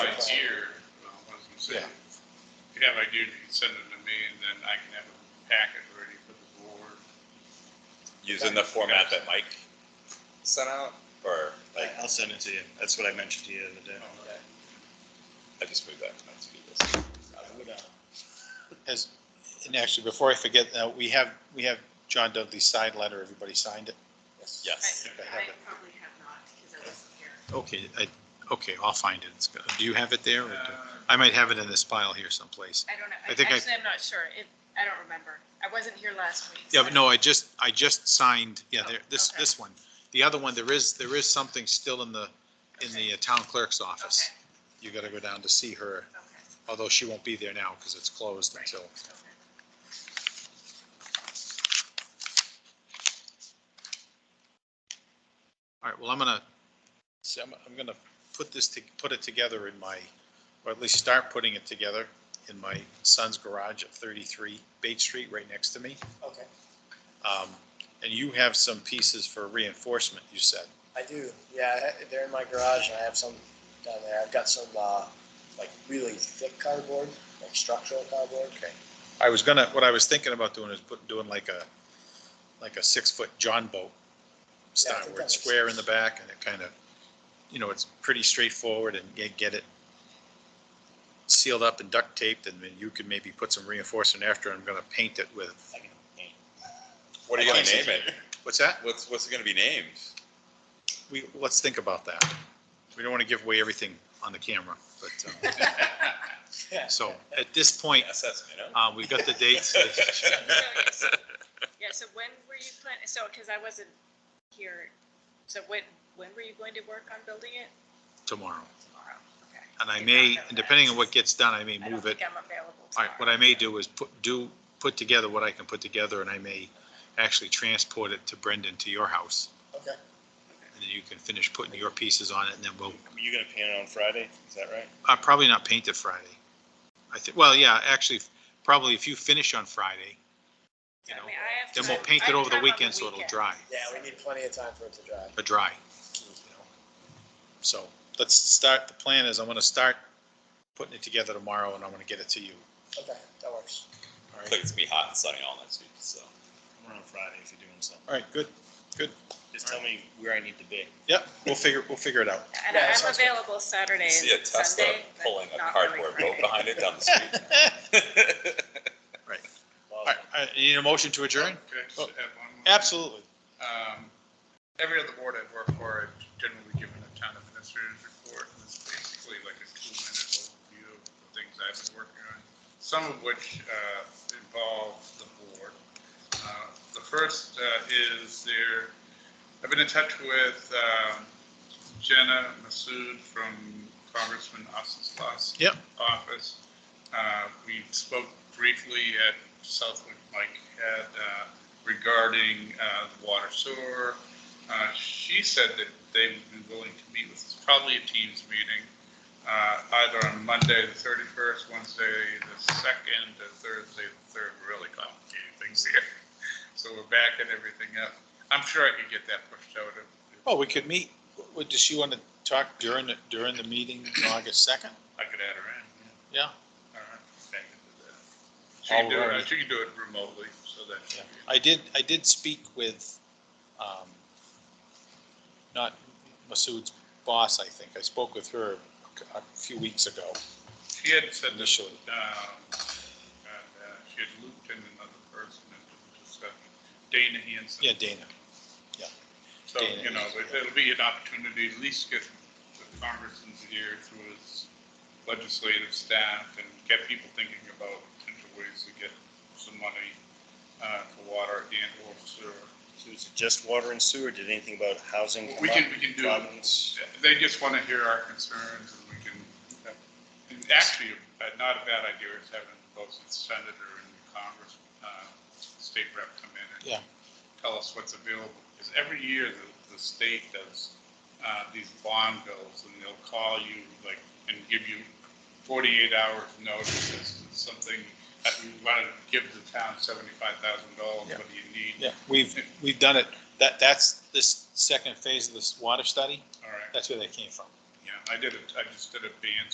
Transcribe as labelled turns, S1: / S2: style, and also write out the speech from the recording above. S1: have ideas, you can send them to me, and then I can have a packet ready for the board.
S2: using the format that Mike sent out, or like, Oh,
S3: I'll send it to you. That's what I mentioned to you the other day.
S2: I just moved that. Let's do this.
S4: As, and actually, before I forget, uh, we have, we have John Dudley's signed letter, everybody signed it?
S2: Yes,
S4: I
S5: I
S4: have it.
S5: probably have not, because I wasn't here.
S4: Okay, I, okay, I'll find it, it's, good. do you have it there? or do-
S1: Uh,
S4: I might have it in this pile here someplace.
S5: I don't know,
S4: I think I-
S5: actually, I'm not sure, it, I don't remember, I wasn't here last week.
S4: Yeah,
S5: so
S4: but no, I just, I just signed, yeah, there, this,
S5: Okay.
S4: this one. The other one, there is, there is something still in the, in the uh, town clerk's office.
S5: Okay,
S4: You gotta go down to see her,
S5: okay,
S4: although she won't be there now, because it's closed
S5: right,
S4: until.
S5: okay.
S4: All right, well, I'm gonna, see, I'm, I'm gonna put this, to put it together in my, or at least start putting it together in my son's garage at thirty-three Bait Street, right next to me.
S6: Okay,
S4: Um, and you have some pieces for reinforcement, you said.
S6: I do. Yeah, I ha- they're in my garage, and I have some down there. I've got some uh, like really thick cardboard, like structural cardboard.
S4: Okay. I was gonna, what I was thinking about doing is put, doing like a, like a six-foot John boat
S6: Yeah, I
S4: style,
S6: think
S4: where it's
S6: that makes
S4: square in the back and it kind of, you know, it's pretty straightforward and get, get it sealed up and duct taped, and then you can maybe put some reinforcement after, I'm gonna paint it with,
S6: I can paint.
S2: what are you gonna name it?
S4: what's that?
S2: What's, what's it gonna be named?
S4: We, let's think about that. We don't wanna give away everything on the camera, but, um, so, at this point,
S2: SS, you know?
S4: uh, we've got the dates.
S5: Yeah, so when were you planning, so, because I wasn't here, so when, when were you going to work on building it?
S4: Tomorrow.
S5: Tomorrow, okay.
S4: And I
S5: Did not
S4: may,
S5: know that.
S4: and depending on what gets done, I may
S5: I don't
S4: move it.
S5: think I'm available
S4: All
S5: tomorrow.
S4: right, what I may do is put, do, put together what I can put together, and I may actually transport it to Brendan to your house.
S6: Okay.
S4: And then you can finish putting your pieces on it, and then we'll,
S3: You gonna paint it on Friday? Is that right?
S4: uh, probably not paint it Friday. I think, well, yeah, actually, probably if you finish on Friday, you
S5: I
S4: know,
S5: mean, I have
S4: then
S5: time-
S4: we'll paint
S5: I
S4: it
S5: have
S4: over the
S5: time on
S4: weekend so it'll
S5: weekend.
S4: dry,
S6: Yeah, we need plenty of time for it to dry.
S4: or dry. you know. So let's start, the plan is I'm gonna start putting it together tomorrow, and I'm gonna get it to you.
S6: Okay, that works.
S4: All
S2: It's
S4: right,
S2: like it's gonna be hot and sunny all next week, so.
S3: I'm around Friday if you're doing something.
S4: all right, good, good.
S3: Just tell me where I need to be.
S4: Yep, we'll figure, we'll figure it out.
S5: And
S6: Yeah,
S5: I'm
S6: sounds good.
S5: available Saturday and
S2: See a Tesla
S5: Sunday, but
S2: pulling a
S5: not really
S2: cardboard
S5: Friday.
S2: boat behind it down the street.
S4: All right, all right, you need a motion to adjourn?
S1: Can I Uh, just
S4: Oh.
S1: add one more?
S4: Absolutely.
S1: Um, Every other board I've worked for, I've generally given a town administrator's report, and it's basically like a two-minute overview of the things I've been working on, some of which uh, involve the board. Uh, The first uh, is there, I've been in touch with um, Jenna Masood from Congressman Ossoslaw's
S4: Yep.
S1: office. Uh, We spoke briefly at Southwick Mike had uh, regarding uh, the water sewer. Uh, She said that they would be willing to meet with, us, probably a Teams meeting, uh, either on Monday, the 31st, Wednesday, the 2nd, or Thursday, the 3rd, really complicated things here. So we're backing everything up. I'm sure I could get that pushed out. if-
S4: Oh, we could meet, would, does she want to talk during, the during the meeting, on August second?
S1: I could add her in.
S4: Yeah.
S1: All right, thank you for that. She can do it, uh, she can do it remotely, so that.
S4: Yeah. I did, I did speak with, um, not Masood's boss, I think. I spoke with her a few weeks ago
S1: She had said that
S4: initially.
S1: um, and, uh, she had looped in another person into the discussion, Dana Hanson.
S4: Yeah, Dana.
S1: So,
S4: Dana
S1: you know,
S4: Hanson,
S1: it- it'll be an opportunity, to at least get the congressman's ear through his legislative staff and get people thinking about potential ways to get some money uh, for water and or sewer.
S3: So is it just water and sewer? Did anything about housing? come
S1: We can,
S3: up?
S1: we can do,
S3: Providence?
S1: they just want to hear our concerns and we can, and actually, uh, not a bad idea is having both the senator and Congress, uh, state rep come in
S4: Yeah.
S1: and tell us what's available. Because every year the, the state does, uh, these bond bills and they'll call you like, and give you forty-eight hours notice. It's something, that you want to give the town seventy-five thousand dollars,
S4: Yeah.
S1: what do you need?
S4: Yeah, we've, we've done it. That, that's this second phase of this water study.
S1: All right,
S4: That's where that came from.
S1: yeah, I did it, I just did a band